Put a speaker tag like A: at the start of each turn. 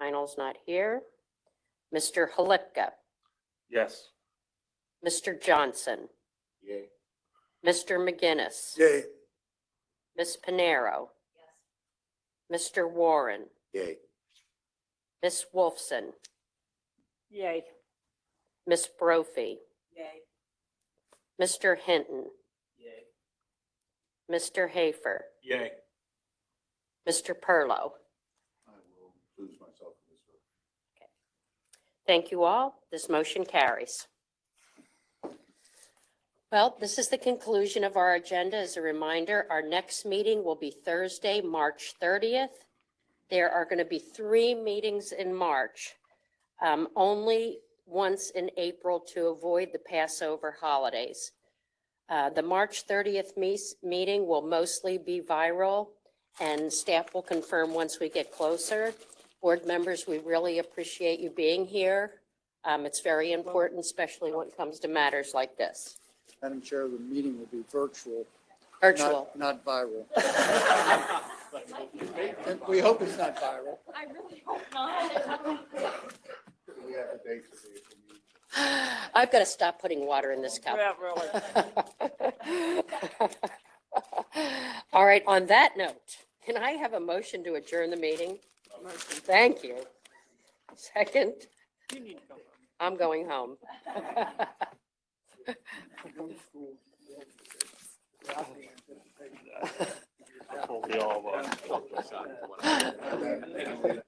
A: Heinel's not here. Mr. Halipka,
B: Yes.
A: Mr. Johnson,
B: Yay.
A: Mr. McGinnis.
B: Yay.
A: Ms. Panero. Mr. Warren,
B: Yay.
A: Ms. Wolfson,
C: Yay.
A: Ms. Brophy,
C: Yay.
A: Mr. Hinton,
B: Yay.
A: Mr. Hafer,
B: Yay.
A: Mr. Perlow.
B: I will lose myself in this one.
A: Thank you all. This motion carries. Well, this is the conclusion of our agenda. As a reminder, our next meeting will be Thursday, March 30th. There are going to be three meetings in March, um, only once in April to avoid the Passover holidays. Uh, The March 30th mees- meeting will mostly be viral, and staff will confirm once we get closer. Board members, we really appreciate you being here. Um, It's very important, especially when it comes to matters like this.
D: Madam Chair, the meeting will be virtual. not-
A: Virtual.
D: Not viral. And We hope it's not viral.
C: I really hope not.
B: We have a date for the April meeting.
A: I've got to stop putting water in this cup.
C: Yeah, really.
A: All right, on that note, can I have a motion to adjourn the meeting? Thank you. Second,
C: You need to go.
A: I'm going home.
E: Hope we all, uh,